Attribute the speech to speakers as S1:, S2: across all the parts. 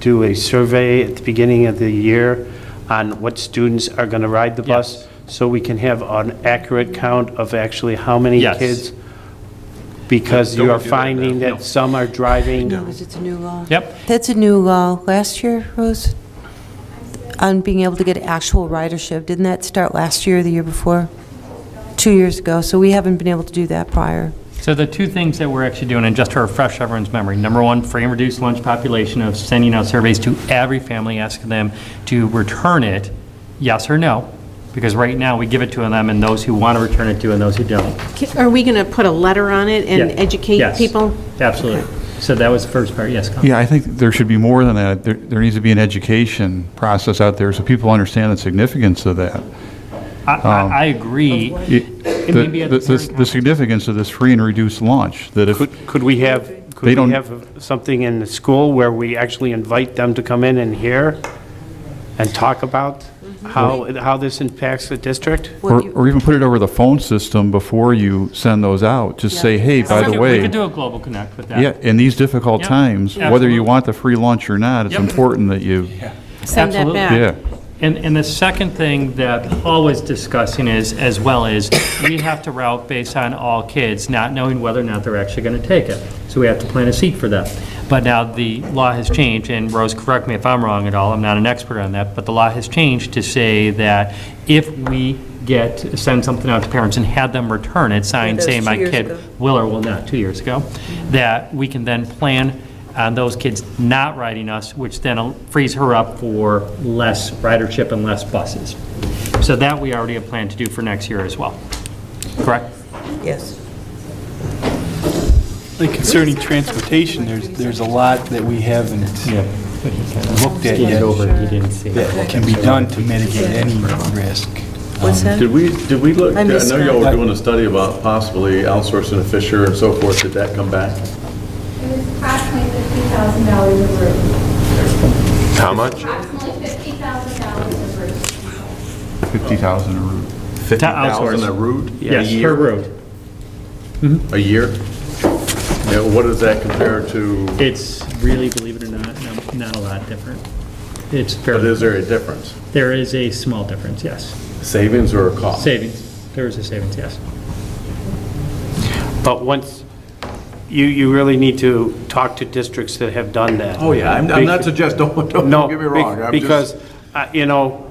S1: do a survey at the beginning of the year on what students are going to ride the bus?
S2: Yes.
S1: So we can have an accurate count of actually how many
S2: Yes.
S1: kids? Because
S3: Don't
S1: you
S3: we
S1: are
S3: do that
S1: finding
S3: now?
S1: that some are driving.
S4: No, because it's a new law.
S2: Yep.
S4: That's a new law. Last year, Rose, on being able to get actual ridership, didn't that start last year or the year before? Two years ago, so we haven't been able to do that prior.
S2: So the two things that we're actually doing, and just to refresh everyone's memory, number one, free and reduced lunch population of sending out surveys to every family, asking them to return it, yes or no, because right now, we give it to them, and those who want to return it to, and those who don't.
S5: Ca- Are we going to put a letter on it and
S2: Yeah.
S5: educate
S2: Yes.
S5: people?
S2: Absolutely. So that was the first part, yes, Colin?
S3: Yeah, I think there should be more than that. There, there needs to be an education process out there so people understand the significance of that.
S2: I- I
S3: um,
S2: I agree.
S3: It-
S2: It may be
S3: The,
S2: at
S3: the-
S2: the
S3: the
S2: parent
S3: the significance of this free and reduced lunch, that if,
S1: Could could we have,
S3: They
S1: could we
S3: don't-
S1: have something in the school where we actually invite them to come in and hear and talk about
S2: Mm-hmm.
S1: how, how this impacts the district?
S3: or or even put it over the phone system before you send those out, just say, hey, by
S2: We
S3: the
S2: could- We
S3: way,
S2: could do a global connect with that.
S3: yeah, in these difficult
S2: Yep,
S3: times, whether
S2: absolutely.
S3: you want the free lunch or not, it's
S2: Yep.
S3: important that you,
S5: Send that
S2: Absolutely.
S5: back.
S3: yeah.
S2: And, and the second thing that Paul was discussing is, as well, is we have to route based on all kids, not knowing whether or not they're actually going to take it. So we have to plan a seat for them. But now the law has changed, and Rose, correct me if I'm wrong at all, I'm not an expert on that, but the law has changed to say that if we get, send something out to parents and had them return it, signed
S4: Yeah, that was
S2: saying
S4: two
S2: my
S4: years
S2: kid
S4: ago.
S2: will or will not, two years ago, that we can then plan on Uh, those kids not riding us, which then frees her up for less ridership and less buses. So that we already have planned to do for next year as well. Correct?
S4: Yes.
S6: Like concerning transportation, there's, there's a lot that we haven't looked at
S2: Get
S6: yet
S2: over, it, you didn't see.
S6: that can be done to mitigate any risk.
S4: What's that?
S7: Did we, did we look,
S4: I
S7: I know
S4: missed
S7: y'all
S6: that.
S7: were doing a study about possibly outsourcing to Fisher and so forth, did that come back?
S8: It was approximately fifty thousand dollars a room.
S7: How much?
S8: Approximately fifty thousand dollars a room.
S3: 50,000 a route.
S7: Fifty thousand
S2: outsource.
S7: a route?
S2: oh, Yes,
S7: A
S2: per
S7: year?
S2: road.
S7: A year? Yeah, what does that compare to,
S2: It's really, believe it or not, no- not a lot different. It's
S7: but
S2: fairly,
S7: is there a difference?
S2: there is a small difference, yes.
S7: Savings or a cost?
S2: Savings, there is a savings, yes.
S1: But once, you, you really need to talk to districts that have done that.
S7: Oh, yeah, I'm, I'm not suggesting, don't, don't
S1: No,
S7: don't get me wrong. I'm
S1: be-
S7: just-
S1: because, uh, you know,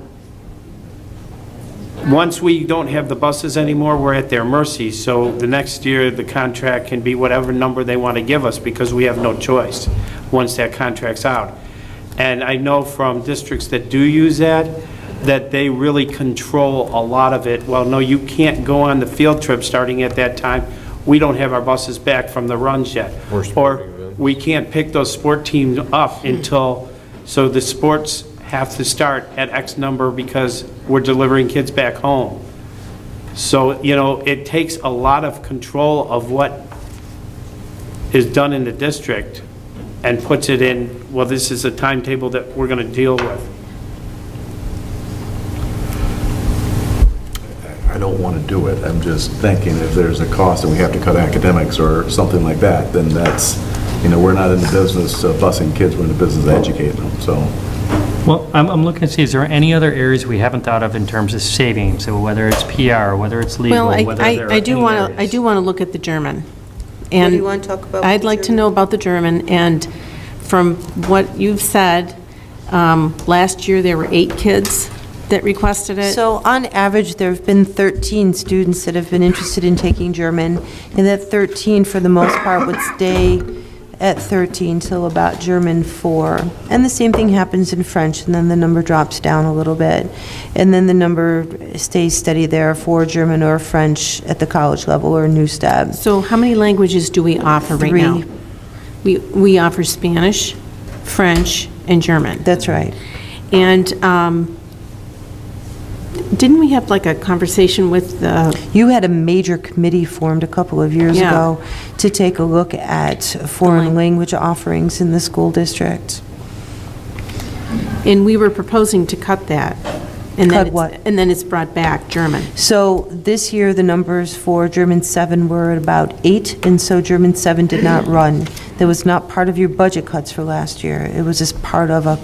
S1: once we don't have the buses anymore, we're at their mercy. So the next year, the contract can be whatever number they want to give us because we have no choice once that contract's out. And I know from districts that do use that, that they really control a lot of it. Well, no, you can't go on the field trip starting at that time. We don't have our buses back from the runs yet. Or we can't pick those sport teams up until, so the sports have to start at X number because we're delivering kids back home. So, you know, it takes a lot of control of what is done in the district and puts it in, well, this is a timetable that we're going to deal with.
S7: I don't want to do it, I'm just thinking if there's a cost and we have to cut academics or something like that, then that's, you know, we're not in the business of busing kids, we're in the business of educating them, so.
S2: Well, I'm, I'm looking to see, is there any other areas we haven't thought of in terms of savings, so whether it's PR, whether it's legal,
S5: Well, I,
S2: whether there are
S5: I I do
S2: any
S5: want to, I
S2: areas?
S5: do want to look at the German.
S4: do
S5: And
S4: you wanna talk about with
S5: I'd
S4: the
S5: like to
S4: German?
S5: know about the German, and from what you've said, um, last year, there were eight kids that requested it.
S4: So on average, there have been 13 students that have been interested in taking German, and that 13, for the most part, would stay at 13 till about German 4. And the same thing happens in French, and then the number drops down a little bit. And then the number stays steady there for German or French at the college level or new stab.
S5: So how many languages do we offer right
S4: Three.
S5: now? We, we offer Spanish, French, and German.
S4: That's right.
S5: And um, didn't we have like a conversation with the
S4: You had a major committee formed a couple of years
S5: Yeah.
S4: ago to take a look at foreign language offerings in the school district.
S5: And we were proposing to cut that And then
S4: Cut
S5: it's-
S4: what?
S5: And then it's brought back, German.
S4: So this year, the numbers for German 7 were at about 8, and so German 7 did not run. That was not part of your budget cuts for last year. It was just part of a